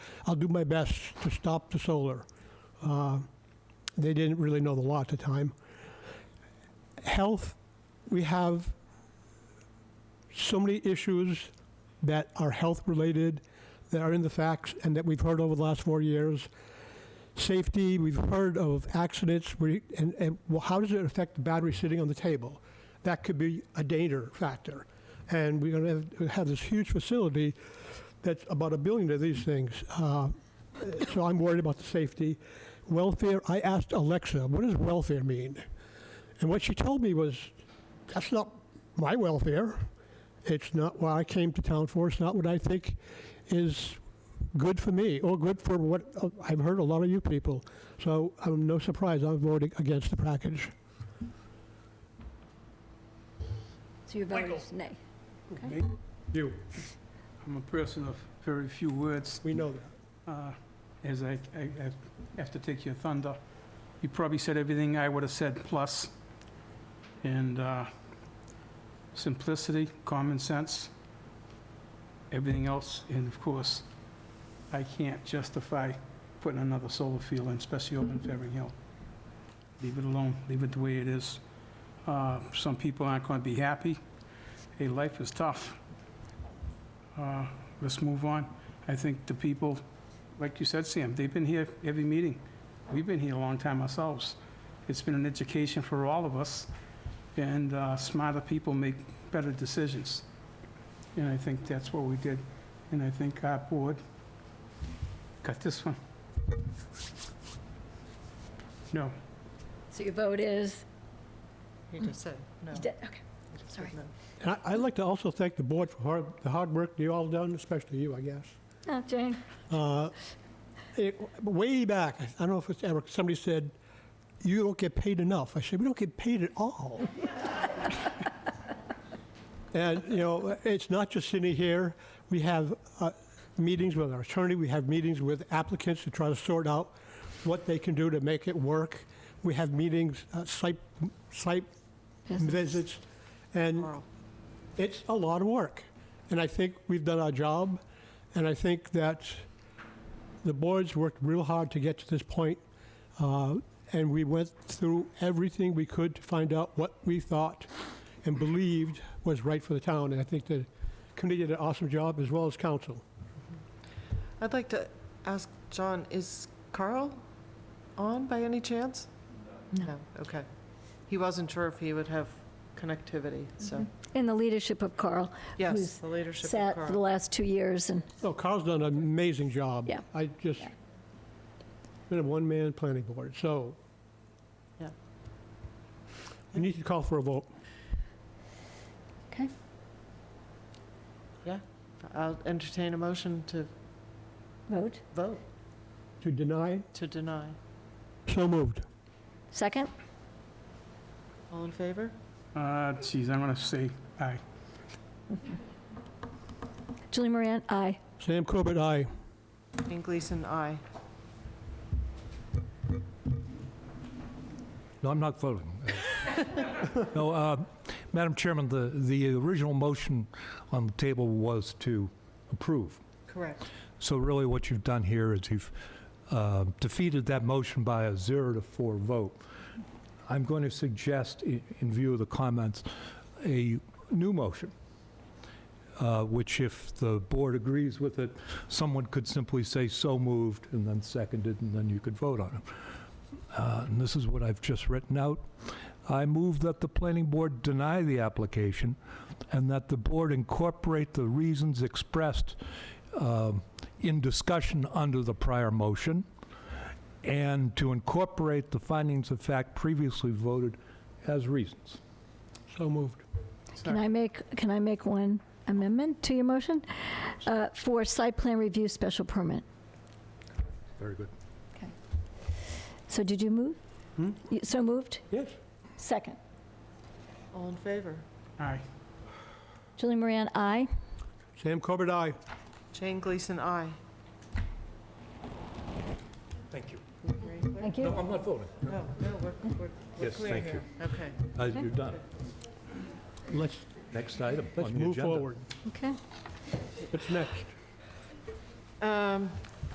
I'll do my best to stop the solar. Uh, They didn't really know the law at the time. Health, we have so many issues that are health-related, that are in the facts, and that we've heard over the last four years. Safety, we've heard of accidents, we- and, and well, how does it affect the battery sitting on the table? That could be a danger factor. And we're going to have this huge facility that's about a billion of these things. Uh, So I'm worried about the safety. Welfare, I asked Alexa, what does welfare mean? And what she told me was, that's not my welfare. It's not what I came to town for. It's not what I think is good for me or good for what uh, I've heard a lot of you people. So I'm no surprise I'm voting against the package. So your vote Michael. is nay. You. I'm a person of very few words, We know that. uh, as I, I I have to take your thunder. You probably said everything I would have said, plus, and uh, simplicity, common sense, everything else, and of course, I can't justify putting another solar field in, especially over in Ferring Hill. Leave it alone, leave it the way it is. Uh, Some people aren't going to be happy. Hey, life is tough. Uh, Let's move on. I think the people, like you said, Sam, they've been here every meeting. We've been here a long time ourselves. It's been an education for all of us, and uh, smarter people make better decisions. And I think that's what we did, and I think our board got this one. No, So your vote is, You just said no. you did- okay. You just sorry. said no. And I- I'd like to also thank the board for hard- the hard work you all done, especially you, I guess. Oh, Jane, Uh, it- Way back, I don't know if it's ever, somebody said, you don't get paid enough. I said, we don't get paid at all. And, you know, it's not just sitting here. We have uh, meetings with our attorney, we have meetings with applicants to try to sort out what they can do to make it work. We have meetings, uh, site, site visits, and Oral. it's a lot of work. And I think we've done our job, and I think that the board's worked real hard to get to this point. uh, And we went through everything we could to find out what we thought and believed was right for the town. And I think the committee did an awesome job, as well as council. I'd like to ask John, is Carl on by any chance? No. Okay. He wasn't sure if he would have connectivity, so, in the leadership of Carl, Mm-hmm. Who's yes, the leadership of sat for the Carl. last two years, and No, Carl's done an amazing job. Yeah. I just, Yeah. been a one-man planning board, so. Yeah. We need to call for a vote. I'll entertain a motion to vote. vote, To deny, to deny. so moved. Second? All in favor? uh, geez, I'm gonna say aye. Julie Moran, aye. Sam Corbett, aye. Jane Gleason, aye. No, I'm not voting. No, uh, Madam Chairman, the, the original motion on the table was to approve. Correct. So really what you've done here is you've uh, defeated that motion by a zero to four vote. I'm going to suggest, i- in view of the comments, a new motion, uh, which if the board agrees with it, someone could simply say so moved and then seconded, and then you could vote on it. Uh, And this is what I've just written out. I move that the planning board deny the application and that the board incorporate the reasons expressed um, in discussion under the prior motion, and to incorporate the findings of fact previously voted as reasons. So moved. Can I make, can I make one amendment to your motion? Uh, For site plan review special permit. Very good. So did you move? Hmm? You- So moved? Yes. Second. All in favor? Aye. Julie Moran, aye. Sam Corbett, aye. Jane Gleason, aye. Thank you. Thank No, you. I'm not voting. Oh, No, no, we're, we're- we're Yes, clear thank here. Okay. Uh, You're done. Let's, Next item on the let's agenda. move forward. Okay. What's next? Um,